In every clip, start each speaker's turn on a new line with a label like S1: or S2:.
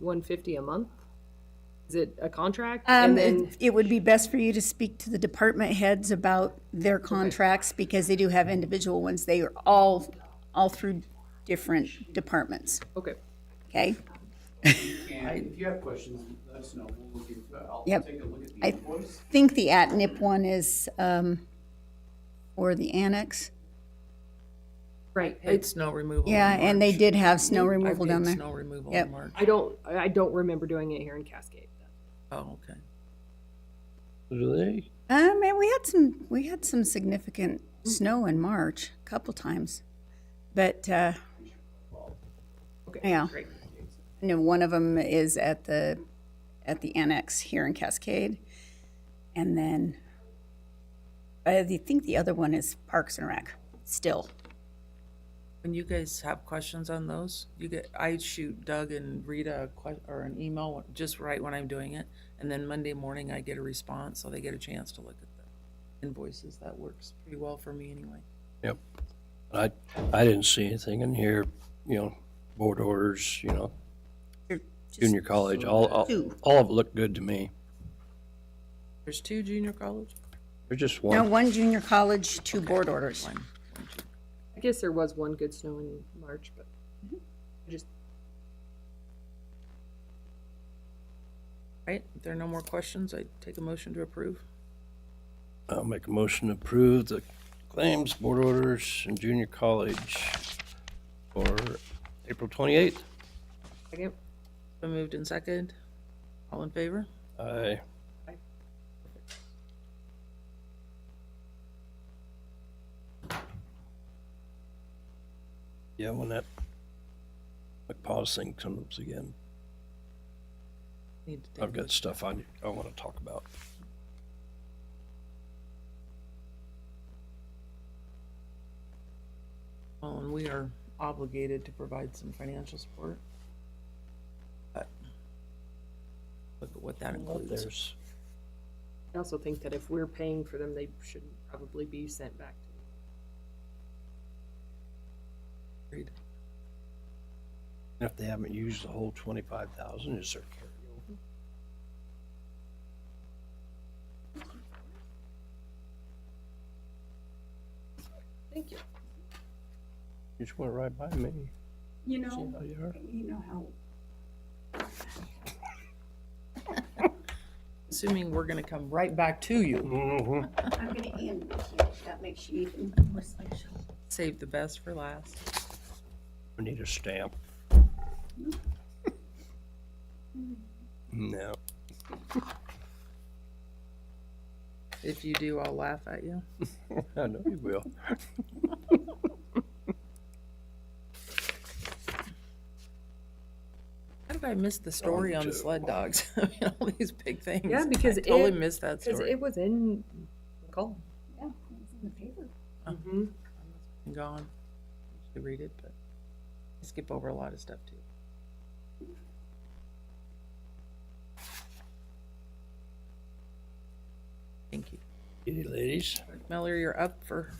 S1: one fifty a month? Is it a contract?
S2: Um,
S1: And then,
S2: it- it would be best for you to speak to the department heads about their contracts because they do have individual ones. They are all, all through different departments,
S1: okay,
S2: okay?
S3: And if you have questions, let us know. We'll look into it. I'll
S2: Yep.
S3: take a look at the invoice.
S2: Think the at-nip one is, um, or the annex.
S1: right.
S4: It's snow removal. in
S2: Yeah, and they
S4: March.
S2: did have snow
S4: I
S2: removal
S4: did
S2: down there.
S4: Snow removal
S2: Yep.
S4: in March.
S1: I don't, I I don't remember doing it here in Cascade.
S4: Oh, okay.
S5: Do they?
S2: Um, and we had some, we had some significant
S1: Mm.
S2: snow in March, a couple times. But, uh,
S1: Okay,
S2: yeah,
S1: great.
S2: I know one of them is at the, at the annex here in Cascade. And then I think the other one is Parks and Rec still.
S4: When you guys have questions on those, you get, I shoot Doug and Rita a que- or an email just right when I'm doing it. And then Monday morning I get a response, so they get a chance to look at the invoices. That works pretty well for me anyway.
S5: Yep. I, I didn't see anything in here, you know, board orders, you know, junior college, all, all,
S2: two.
S5: all of it looked good to me.
S4: There's two junior college?
S5: There's just
S2: No,
S5: one,
S2: one junior college, two board orders.
S4: One, one, two.
S1: I guess there was one good snow in March, but I just,
S4: Right, if there are no more questions, I take a motion to approve.
S5: I'll make a motion to approve the claims, board orders, and junior college for April twenty-eighth.
S1: second,
S4: Been moved in second. All in favor?
S5: I, yeah, when that McPaws thing comes up again,
S4: Need to take
S5: I've got stuff I, I want to talk about.
S4: Well, and Um, we are obligated to provide some financial support. But Look at what that includes.
S5: There's,
S1: I also think that if we're paying for them, they should probably be sent back to
S4: Agreed.
S5: if they haven't used the whole twenty-five thousand, is there carryover?
S1: Thank you.
S5: You just went right by me.
S2: You
S5: See
S2: know,
S5: how you are?
S2: you know how
S4: Assuming we're gonna come right back to you.
S2: I'm gonna end with you. That makes you even more special.
S4: Save the best for last.
S5: We need a stamp. No.
S4: If you do, I'll laugh at you.
S5: I know you will.
S4: How did I miss the story on the sled dogs? I mean, All these big things.
S1: Oh, Yeah, because
S4: I totally
S1: it-
S4: missed that
S1: Cause
S4: story.
S1: it was in McCall.
S2: Yeah, it's in the paper.
S1: Mm-hmm.
S4: Gone. You read it, but I skip over a lot of stuff too. Thank you.
S5: Kitty ladies,
S4: Miller, you're up for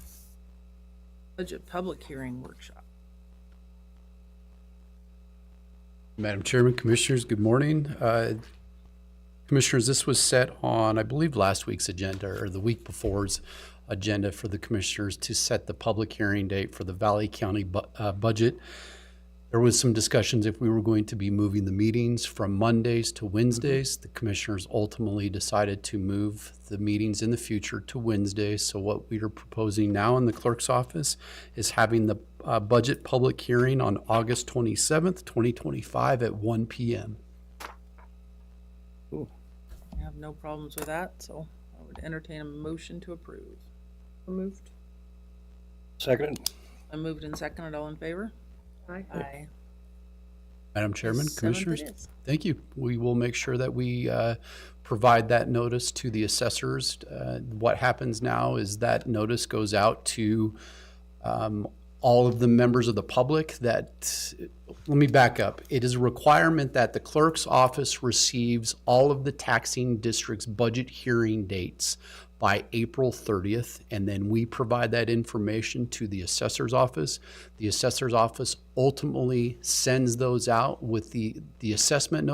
S4: budget public hearing workshop.
S6: Madam Chairman, Commissioners, good morning. Uh, Commissioners, this was set on, I believe, last week's agenda or the week before's agenda for the Commissioners to set the public hearing date for the Valley County bu- uh, budget. There was some discussions if we were going to be moving the meetings from Mondays to Wednesdays. The Commissioners ultimately decided to move the meetings in the future to Wednesdays. So what we are proposing now in the clerk's office is having the uh, budget public hearing on August 27th, 2025 at 1 PM.
S4: I have no problems with that, so I would entertain a motion to approve.
S1: Removed.
S5: second,
S4: I moved and seconded, all in favor?
S1: Aye.
S4: Aye.
S6: Madam Chairman,
S4: Seventh it
S6: Commissioners,
S4: is.
S6: thank you. We will make sure that we uh, provide that notice to the assessors. Uh, What happens now is that notice goes out to um, all of the members of the public that, let me back up. It is a requirement that the clerk's office receives all of the taxing district's budget hearing dates by April 30th, and then we provide that information to the assessor's office. The assessor's office ultimately sends those out with the, the assessment